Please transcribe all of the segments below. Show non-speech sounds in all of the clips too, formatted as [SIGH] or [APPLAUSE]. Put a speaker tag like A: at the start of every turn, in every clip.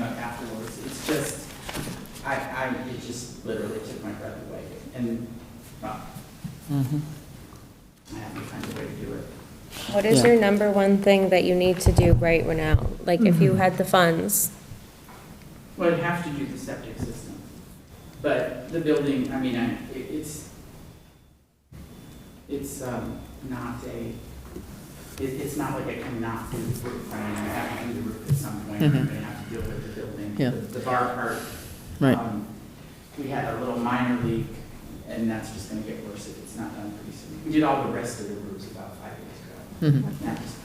A: up afterwards. It's just, I, I, it just literally took my breath away. And, well,
B: Mm-hmm.
A: I have to find a way to do it.
C: What is
B: Yeah.
C: your number one thing that you need to do right now? Like, if you had the funds,
A: Well, I'd have to do the septic system. But the building, I mean, I, it- it's, it's, um, not a, it, it's not like I cannot do the roof. I mean, I have to do the roof at some point. I'm
B: Mhm.
A: gonna have to deal with the building.
B: Yeah.
A: The- The bar part.
B: Right.
A: um, We had a little minor leak, and that's just gonna get worse if it's not done pretty soon. We did all the rest of the roofs about five years ago.
B: Mhm.
A: That was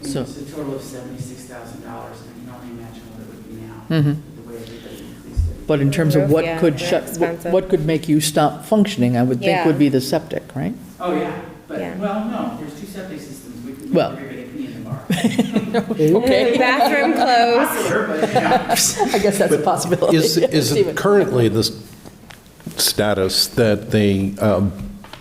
A: it's
B: So-
A: a total of seventy-six thousand dollars, and I can only imagine what it would be now,
B: Mhm.
A: the way everybody increased it.
B: But in terms of
C: Roof,
B: what
C: yeah,
B: could
C: they're
B: shut, what-
C: expensive.
B: what could make you stop functioning, I would think
C: Yeah.
B: would be the septic, right?
A: Oh, yeah, but,
C: Yeah.
A: well, no, there's two septic systems, we could,
B: Well.
A: we're gonna pee in the
B: [LAUGHS]
A: bar.
B: Okay,
C: bathroom closed,
A: Popular, but, yeah.
B: [LAUGHS] I guess that's a possibility.
D: Is, is
B: Stephen.
D: it currently the s- status that the um,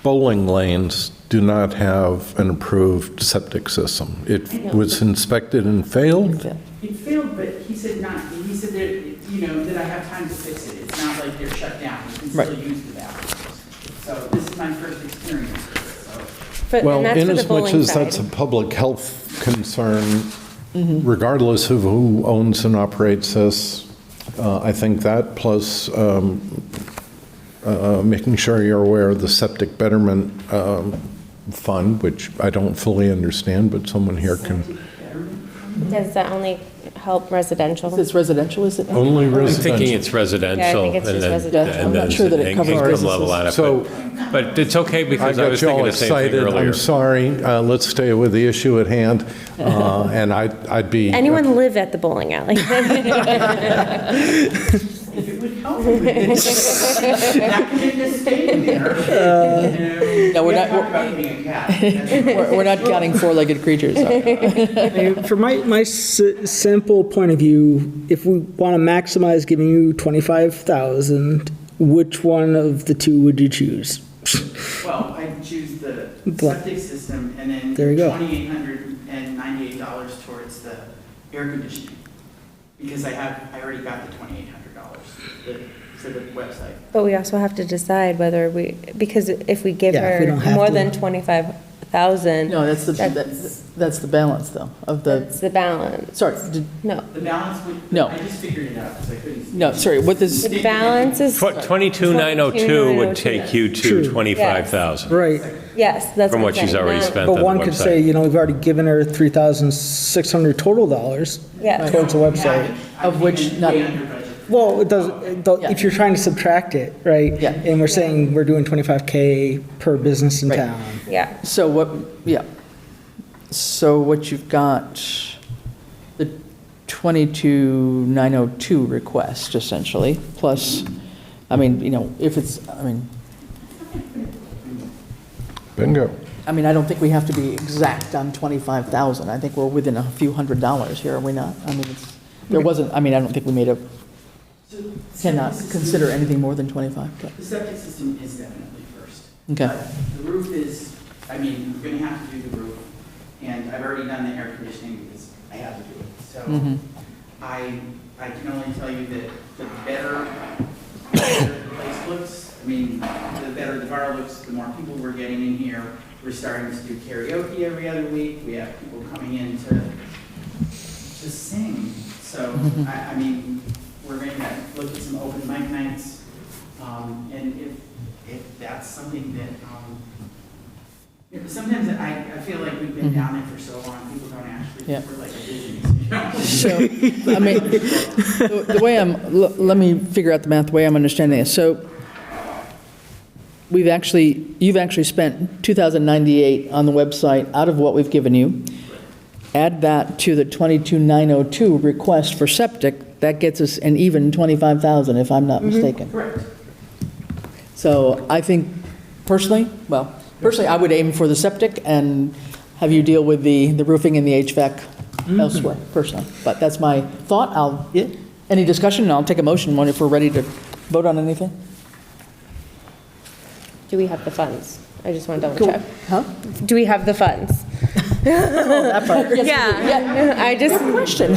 D: bowling lanes do not have an approved septic system? It was inspected and failed?
A: It failed, but he said not, he said that, you know, that I have time to fix it, it's not like they're shut down, you can still
B: Right.
A: use the bathrooms. So this is my first experience with it, so.
C: For-
D: Well,
C: and that's for the
D: inasmuch
C: bowling
D: as that's a
C: side. Mm-hmm.
D: public health concern, regardless of who owns and operates this, uh, I think that plus um, uh, making sure you're aware of the septic betterment um, fund, which I don't fully understand, but someone here can.
C: Does that only help residential?
B: It's residential, is it?
D: Only
E: I'm thinking
D: residential.
E: it's residential.
C: Yeah, I think it's
E: and
C: just
E: then-
B: residential.
E: and
B: I'm not
E: then
B: sure that it
E: in-
B: covers
E: Income
B: businesses.
E: level out of it.
D: So-
E: But it's okay
D: I
E: because I
D: got
E: was
D: you
E: thinking
D: all
E: the same thing
D: excited.
E: earlier.
D: I'm sorry. Uh, Let's stay with the issue at hand. Uh, And I- I'd be.
C: Anyone live at the bowling alley? [LAUGHS]
A: If it would help me. That could have just stayed there. You know,
B: No, we're
A: we
B: not-
A: haven't talked about being a cat.
B: We're we're not counting four-legged creatures.
C: [LAUGHS]
B: okay.
F: Uh, From my, my s- simple point of view, if we want to maximize giving you 25,000, which one of the two would you choose?
A: Well, I choose the
F: Blah.
A: septic system and then
F: There you go.
A: twenty-eight hundred and ninety-eight dollars towards the air conditioning. Because I have, I already got the twenty-eight hundred dollars for the website.
C: But we also have to decide whether we, because if we give
F: Yeah, if we
C: her
F: don't have
C: more
F: to.
C: than 25,000,
B: No, that's the,
C: That's-
B: that's that's the balance, though, of the,
C: that's the balance.
B: sorry, did-
C: No,
A: The balance would.
B: No.
A: I just figured it out because I couldn't.
B: no, sorry, what is,
C: the balance is,
E: Tw- 22,902 would take you
F: True.
E: to 25,000
F: Right,
C: yes, that's
E: from
C: what
E: what
C: I'm
E: she's
C: saying,
E: already
C: not-
E: spent on
F: but
E: the
F: one could say,
E: website.
F: you know, we've already given her 3,600 total dollars
C: Yes.
F: towards the website.
B: Of which
A: not
B: not-
A: Way under budget.
F: Well, it doesn't, it don't- if you're trying to subtract it, right?
B: Yeah.
F: And we're saying we're doing 25K per business in
B: Right.
F: town.
C: Yeah.
B: so what, yeah. So what you've got, the 22,902 request essentially, plus, I mean, you know, if it's, I mean,
D: Bingo.
B: I mean, I don't think we have to be exact on 25,000. I think we're within a few hundred dollars here, are we not? I mean, it's, there wasn't, I mean, I don't think we made a,
A: So the septic
B: cannot
A: system-
B: consider anything more than 25, but,
A: The septic system is definitely first.
B: okay.
A: But The roof is, I mean, we're gonna have to do the roof, and I've already done the air conditioning because I had to do it. So
B: Mhm.
A: I, I can only tell you that the better, the better the place looks, I mean, the better the bar looks, the more people we're getting in here. We're starting to do karaoke every other week, we have people coming in to, to sing. So, I, I mean, we're gonna look at some open mic nights, um, and if, if that's something that, um, you know, sometimes I, I feel like we've been down it for so long, people don't actually,
B: Yeah.
A: think we're like a business, you know?
B: So, I mean, the the way I'm, l- let me figure out the math, the way I'm understanding this. So we've actually, you've actually spent 2,098 on the website out of what we've given you. Add that to the 22,902 request for septic, that gets us an even 25,000, if I'm not mistaken.
A: Correct.
B: So I think personally, well, personally, I would aim for the septic and have you deal with the, the roofing and the HVAC elsewhere personally. But that's my thought. I'll, any discussion, and I'll take a motion when if we're ready to vote on anything.
C: Do we have the funds? I just want to double
B: Cool.
C: check.
B: Huh? [LAUGHS] Oh,
C: Do we have the funds?
B: That part.
C: [LAUGHS] Yeah. I just
B: Question.